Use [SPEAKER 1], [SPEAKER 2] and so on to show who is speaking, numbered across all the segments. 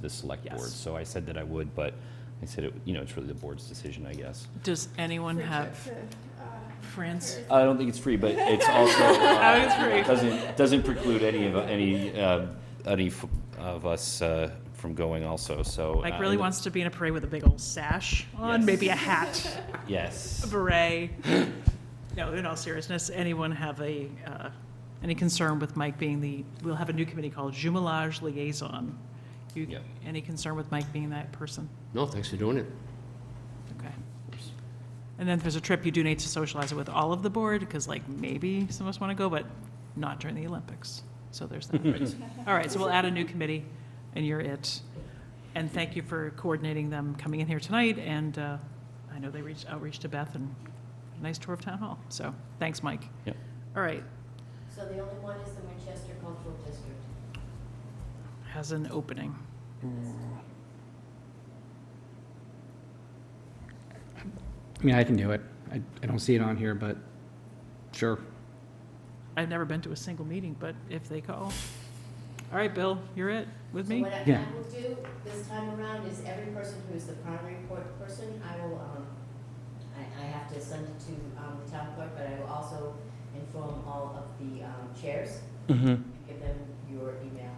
[SPEAKER 1] the select board.
[SPEAKER 2] Yes.
[SPEAKER 1] So I said that I would, but I said, it- you know, it's really the board's decision, I guess.
[SPEAKER 2] Does anyone have
[SPEAKER 3] Friendship, uh,
[SPEAKER 2] France?
[SPEAKER 1] I don't think it's free, but it's also,
[SPEAKER 2] I
[SPEAKER 1] uh,
[SPEAKER 2] was free.
[SPEAKER 1] doesn't, doesn't preclude any of, any, uh, any f- of us uh, from going also, so.
[SPEAKER 2] Mike
[SPEAKER 1] uh,
[SPEAKER 2] really
[SPEAKER 1] and-
[SPEAKER 2] wants to be in a parade with a big old sash on,
[SPEAKER 1] Yes.
[SPEAKER 2] maybe a hat, a
[SPEAKER 1] Yes.
[SPEAKER 2] beret. No, in all seriousness, anyone have a, uh, any concern with Mike being the, we'll have a new committee called Jumelage Liaison. You-
[SPEAKER 1] Yep.
[SPEAKER 2] Any concern with Mike being that person?
[SPEAKER 4] No, thanks for doing it.
[SPEAKER 2] Okay. And then if there's a trip, you do need to socialize it with all of the board, because like, maybe some of us want to go, but not during the Olympics. So there's that. All right, so we'll add a new committee, and you're it. And thank you for coordinating them coming in here tonight, and uh, I know they reached outreach to Beth and a nice tour of Town Hall. So, thanks, Mike.
[SPEAKER 1] Yep.
[SPEAKER 2] All right,
[SPEAKER 5] So the only one is the Winchester Cultural District.
[SPEAKER 2] has an opening. Mm.
[SPEAKER 6] I mean, I can do it. I, I don't see it on here, but sure.
[SPEAKER 2] I've never been to a single meeting, but if they call. All right, Bill, you're it with me?
[SPEAKER 5] So what I-
[SPEAKER 6] Yeah.
[SPEAKER 5] I will do this time around is every person who is the primary court person, I will, um, I, I have to send it to, um, the town clerk, but I will also inform all of the, um, chairs,
[SPEAKER 6] Mm-hmm.
[SPEAKER 5] give them your email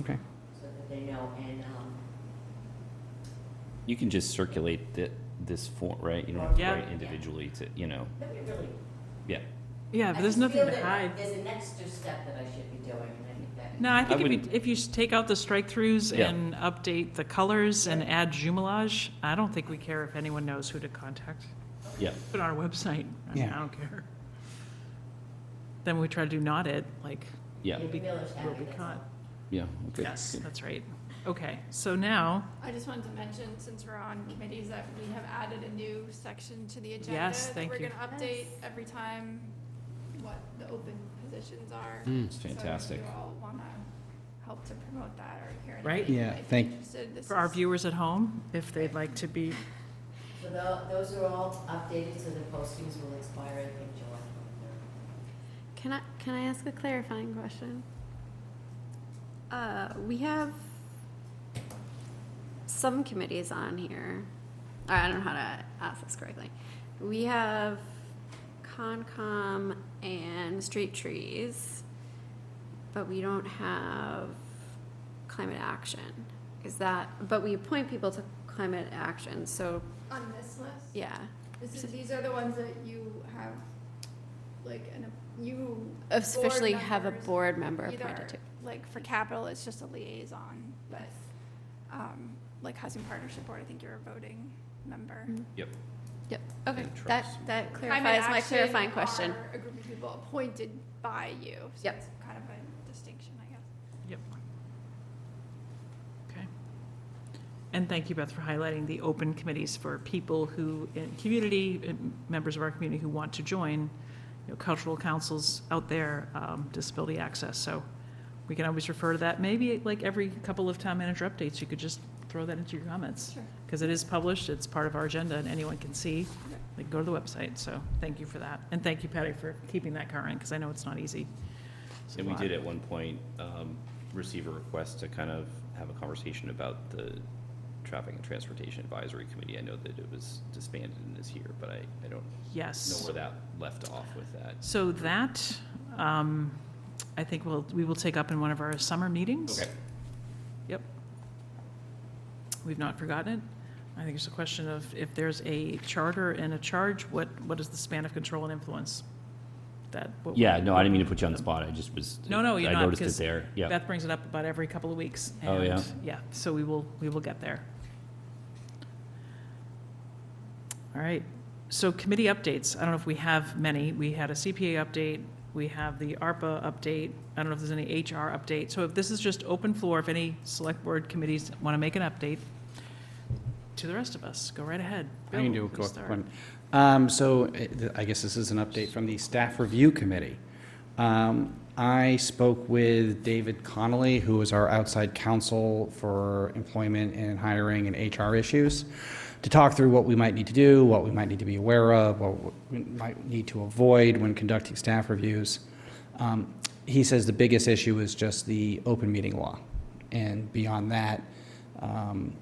[SPEAKER 6] Okay.
[SPEAKER 5] so that they know, and, um,
[SPEAKER 1] You can just circulate thi- this form, right? You don't have to
[SPEAKER 2] Yeah.
[SPEAKER 1] write individually to, you know,
[SPEAKER 5] nobody really.
[SPEAKER 1] yeah.
[SPEAKER 2] Yeah,
[SPEAKER 5] I
[SPEAKER 2] but there's
[SPEAKER 5] just
[SPEAKER 2] nothing
[SPEAKER 5] feel
[SPEAKER 2] to
[SPEAKER 5] that
[SPEAKER 2] hide.
[SPEAKER 5] There's an extra step that I should be doing, and I think that.
[SPEAKER 2] No, I think if you,
[SPEAKER 1] wouldn't-
[SPEAKER 2] if you s- take out the strike-throughs
[SPEAKER 1] Yeah.
[SPEAKER 2] and update the colors and add jumelage, I don't think we care if anyone knows who to contact.
[SPEAKER 1] Yeah.
[SPEAKER 2] Put it on our website, I mean,
[SPEAKER 6] Yeah.
[SPEAKER 2] I don't care. Then we try to do not it, like,
[SPEAKER 1] Yeah,
[SPEAKER 5] You'll be
[SPEAKER 2] we'll be caught.
[SPEAKER 1] yeah, okay.
[SPEAKER 2] Yes, that's right. Okay, so now,
[SPEAKER 3] I just wanted to mention, since we're on committees, that we have added a new section to the agenda.
[SPEAKER 2] Yes,
[SPEAKER 3] that
[SPEAKER 2] thank you.
[SPEAKER 3] We're gonna update every time what the open positions are.
[SPEAKER 2] Hmm,
[SPEAKER 4] Mm.
[SPEAKER 1] It's
[SPEAKER 3] So if
[SPEAKER 1] fantastic.
[SPEAKER 3] you all wanna help to promote that or hear anything.
[SPEAKER 2] Right.
[SPEAKER 6] Yeah,
[SPEAKER 3] if you're
[SPEAKER 6] thank-
[SPEAKER 3] interested, this
[SPEAKER 2] for our
[SPEAKER 3] is-
[SPEAKER 2] viewers at home, if they'd like to be,
[SPEAKER 5] So tho- those are all updated, so the postings will expire, I think, July twenty-third.
[SPEAKER 7] Can I, can I ask a clarifying question? Uh, we have some committees on here. I don't know how to ask this correctly. We have Concom and Street Trees, but we don't have Climate Action. Is that, but we appoint people to Climate Action, so,
[SPEAKER 3] On this list.
[SPEAKER 7] yeah.
[SPEAKER 3] This is, these are the ones that you have, like, an, you.
[SPEAKER 7] Officially have a
[SPEAKER 3] members,
[SPEAKER 7] board member
[SPEAKER 3] Either,
[SPEAKER 7] appointed to.
[SPEAKER 3] like, for capital, it's just a liaison, but, um, like Housing Partnership Board, I think you're a voting member.
[SPEAKER 7] Mhm.
[SPEAKER 1] Yep.
[SPEAKER 7] Yep, okay,
[SPEAKER 1] And
[SPEAKER 7] that,
[SPEAKER 1] trucks.
[SPEAKER 7] that
[SPEAKER 3] Climate
[SPEAKER 7] clarifies my
[SPEAKER 3] action
[SPEAKER 7] clarifying question.
[SPEAKER 3] are A group of people appointed by you. so
[SPEAKER 7] Yep.
[SPEAKER 3] it's Kind of a distinction, I guess.
[SPEAKER 2] yep. Okay. And thank you, Beth, for highlighting the open committees for people who, in community, in- members of our community who want to join, you know, cultural councils out there, um, disability access. So we can always refer to that. Maybe like every couple of town manager updates, you could just throw that into your comments.
[SPEAKER 3] Sure.
[SPEAKER 2] Because it is published, it's part of our agenda, and anyone can see. They can go to the website, so thank you for that. And thank you, Patty, for keeping that current, because I know it's not easy. uh, It's a
[SPEAKER 1] And we
[SPEAKER 2] lot.
[SPEAKER 1] did at one point um, receive a request to kind of have a conversation about the Traffic and Transportation Advisory Committee. I know that it was disbanded and is here, but I, I don't know
[SPEAKER 2] Yes.
[SPEAKER 1] where that left off with that.
[SPEAKER 2] So that, um, I think we'll, we will take up in one of our summer meetings.
[SPEAKER 1] Okay,
[SPEAKER 2] Yep. We've not forgotten it. I think it's a question of if there's a charter and a charge, what, what is the span of control and influence? That. what-
[SPEAKER 1] yeah, no, I didn't mean to put you on the spot, I just was.
[SPEAKER 2] No, no, you're
[SPEAKER 1] I
[SPEAKER 2] not,
[SPEAKER 1] noticed
[SPEAKER 2] because
[SPEAKER 1] it there, yeah.
[SPEAKER 2] Beth brings it up about every couple of weeks.
[SPEAKER 1] Oh,
[SPEAKER 2] and,
[SPEAKER 1] yeah.
[SPEAKER 2] Yeah, so we will, we will get there. All right, so committee updates, I don't know if we have many. We had a CPA update, we have the ARPA update, I don't know if there's any HR update. So if this is just open floor, if any select board committees want to make an update to the rest of us, go right ahead.
[SPEAKER 6] I can do
[SPEAKER 2] Bill,
[SPEAKER 6] a
[SPEAKER 2] you
[SPEAKER 6] quick
[SPEAKER 2] start.
[SPEAKER 6] one. Um, so uh, th- I guess this is an update from the staff review committee. Um, I spoke with David Connolly, who is our outside counsel for employment and hiring and HR issues, to talk through what we might need to do, what we might need to be aware of, what we might need to avoid when conducting staff reviews. Um, he says the biggest issue is just the open meeting law. And beyond that, Um,